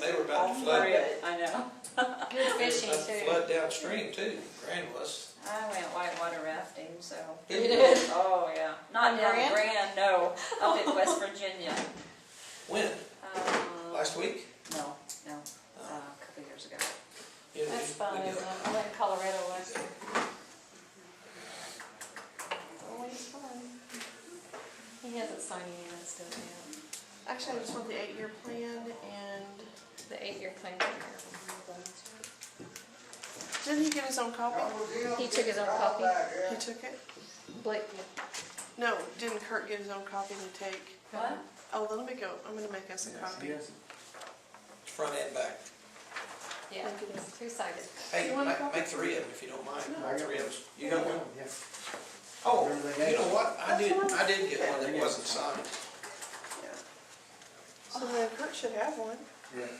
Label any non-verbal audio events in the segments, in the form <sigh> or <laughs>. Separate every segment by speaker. Speaker 1: they were about to
Speaker 2: Oh,
Speaker 1: flood.
Speaker 2: yeah, I know.
Speaker 3: Good
Speaker 1: They were
Speaker 3: fishing
Speaker 1: about to
Speaker 3: too. <laughs>
Speaker 1: Flood downstream too, Grand was.
Speaker 2: I went whitewater rafting, so.
Speaker 3: You did?
Speaker 2: Oh, yeah. Not
Speaker 3: On
Speaker 2: down
Speaker 3: Grand?
Speaker 2: Grand, no. Up <laughs> in West Virginia.
Speaker 1: When?
Speaker 2: Um,
Speaker 1: Last week?
Speaker 2: No, no, uh, a couple years ago.
Speaker 1: You know,
Speaker 3: That's
Speaker 1: we-
Speaker 3: fun,
Speaker 1: we
Speaker 3: isn't
Speaker 1: go.
Speaker 3: it? I went to Colorado last year. Always fun. He hasn't signed any of that stuff yet.
Speaker 4: Actually, I just want the eight-year plan and,
Speaker 3: The eight-year plan.
Speaker 4: didn't he get his own copy?
Speaker 3: He took his own copy.
Speaker 4: He took it?
Speaker 3: Blake.
Speaker 4: No, didn't Kurt get his own copy to take?
Speaker 2: What?
Speaker 4: Oh, let me go, I'm gonna make us a copy.
Speaker 1: Front and back.
Speaker 3: Yeah, two-sided.
Speaker 1: Hey,
Speaker 4: You want a
Speaker 1: make,
Speaker 4: copy?
Speaker 1: make three of them if you don't mind,
Speaker 5: I got
Speaker 1: three of us. You
Speaker 5: Yeah,
Speaker 1: got one?
Speaker 5: yeah.
Speaker 1: Oh,
Speaker 5: Remember they
Speaker 1: you
Speaker 5: gave
Speaker 1: know
Speaker 5: us-
Speaker 1: what? I
Speaker 4: That's
Speaker 1: did,
Speaker 4: fine.
Speaker 1: I did get one
Speaker 5: They
Speaker 1: that
Speaker 5: gave us
Speaker 1: wasn't
Speaker 5: some.
Speaker 1: signed.
Speaker 4: Yeah. So then Kurt should have one.
Speaker 5: Yeah.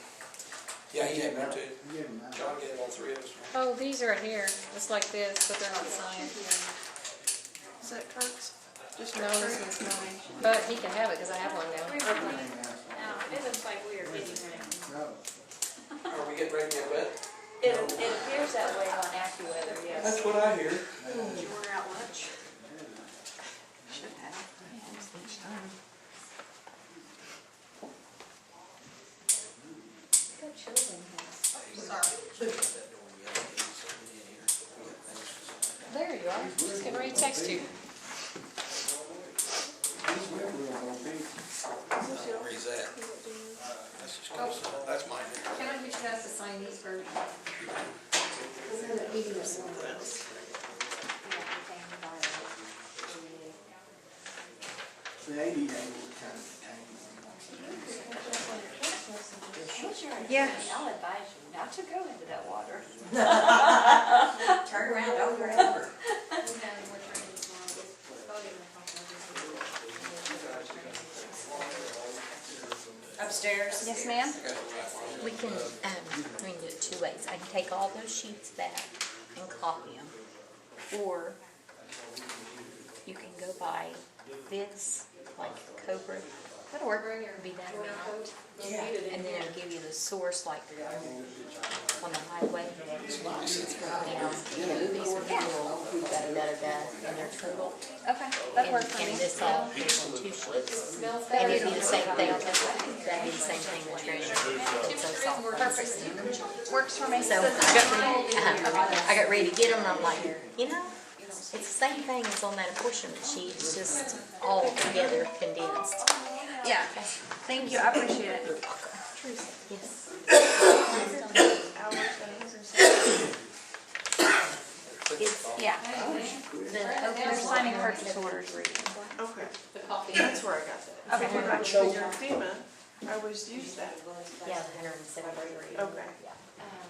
Speaker 1: Yeah, he had one too.
Speaker 5: You gave them that.
Speaker 1: John gave all three of us one.
Speaker 3: Oh, these are here. It's like this, but they're not signed.
Speaker 4: Is that Kurt's? Just
Speaker 3: No, this
Speaker 4: Kurt?
Speaker 3: one's mine. But he can have it because I have one now.
Speaker 5: You gave them that.
Speaker 2: it looks like we are getting ready.
Speaker 5: No.
Speaker 1: Are we getting ready to get wet?
Speaker 2: It, it appears that way on AccuWeather, yes.
Speaker 1: That's what I hear.
Speaker 4: Did you order out lunch? Should have.
Speaker 3: There you are. Just gonna re-text you.
Speaker 5: These were real big.
Speaker 1: Where's that? That's just close enough. That's mine.
Speaker 3: Can I get you guys to sign these first?
Speaker 5: The eighty-eight was kind of tangled.
Speaker 3: Yeah.
Speaker 2: I'll advise you not to go into that <laughs> water.
Speaker 6: Turn around over and over. Upstairs?
Speaker 7: Yes, ma'am? We can, um, we can do it two ways. I can take all those sheets back and copy them. Or you can go buy bids like Cobra. That'll work. Be that amount. And then it'll give you the source like on the highway. It's You know, movies with people, da da da da, and their total.
Speaker 3: Okay,
Speaker 7: And and this all, there's two sheets.
Speaker 3: Smells
Speaker 7: And
Speaker 3: better.
Speaker 7: it'd be the same thing, that'd be the same thing with treasure.
Speaker 3: Perfect. Works for
Speaker 7: So I got ready, uh-huh, I got ready to get them, and I'm like, you know, it's the same thing as on that apportionment sheet, it's just all together condensed.
Speaker 3: Yeah, thank you, I appreciate it.
Speaker 7: Yes. It's,
Speaker 3: Yeah.
Speaker 7: the
Speaker 3: We're
Speaker 7: open
Speaker 3: signing purchase orders, reading.
Speaker 4: Okay,
Speaker 3: The coffee.
Speaker 4: that's where I got that.
Speaker 3: Okay.
Speaker 4: When I checked on FEMA, I always use that.
Speaker 7: yeah, the hundred and seventy-three.
Speaker 4: Okay.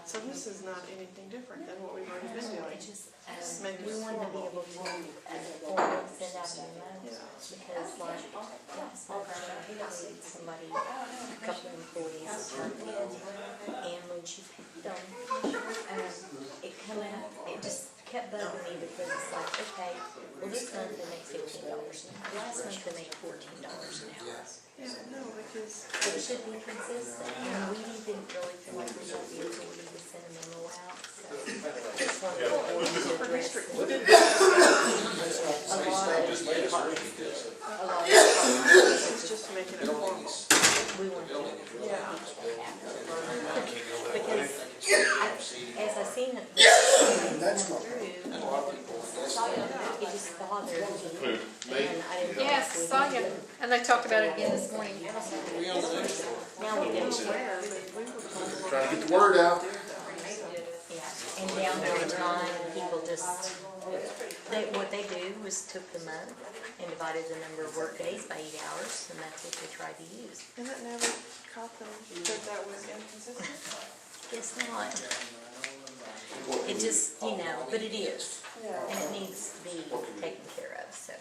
Speaker 4: So this is not anything different than what we've already been doing.
Speaker 7: It's just, um,
Speaker 4: Maybe
Speaker 7: we
Speaker 4: it's
Speaker 7: wanted to be
Speaker 4: formal.
Speaker 7: able to, uh, form, send out an email, because like, yes, I need somebody, a couple of employees to turn in, and when she picked them, um, it come out, it just kept bugging me because it's like, okay, well, this month they make fifteen dollars an hour, last month they make fourteen dollars an hour.
Speaker 4: Yeah, no, because
Speaker 7: It should be consistent, and we didn't really feel like we should be able to send a memo out, so. Just wanted to address it.
Speaker 4: we did
Speaker 7: A lot of,
Speaker 1: Just made us early because
Speaker 7: a lot of,
Speaker 4: This is just to make it
Speaker 1: the
Speaker 4: informal.
Speaker 1: building is,
Speaker 7: we want to
Speaker 1: building is really.
Speaker 4: Yeah.
Speaker 7: Because as I seen it,
Speaker 5: That's not.
Speaker 1: And a lot of people, that's
Speaker 7: it just bothered me. And I didn't.
Speaker 3: Yes, saw you, and they talked about it again this morning.
Speaker 1: we on the next one.
Speaker 7: Now we do,
Speaker 4: Where, but we were told what
Speaker 5: Trying to get the word out.
Speaker 7: yeah, and down there the line, people just, they, what they do is took the month and divided the number of work days by eight hours, and that's what they tried to use.
Speaker 4: And it never caught them that that was inconsistent?
Speaker 7: It's not. It just, you know, but it is, and it needs to be taken care of, so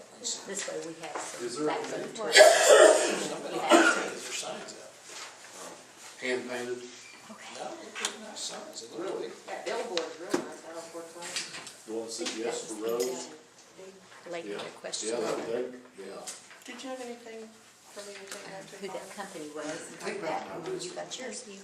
Speaker 7: this way we have some backup. to it. You have
Speaker 1: There's signs out.
Speaker 5: Hand painted.
Speaker 7: to- okay.
Speaker 1: No, there's no signs. It looked like-
Speaker 6: That billboard's real nice out on Fort Wayne.
Speaker 8: The one that said yes for roads?
Speaker 7: Like
Speaker 8: Yeah.
Speaker 7: the question,
Speaker 8: Yeah, that,
Speaker 7: who
Speaker 8: that, yeah.
Speaker 4: Did you have anything from anything I took
Speaker 7: that
Speaker 4: off?
Speaker 7: company was, and all that, and when you got yours, you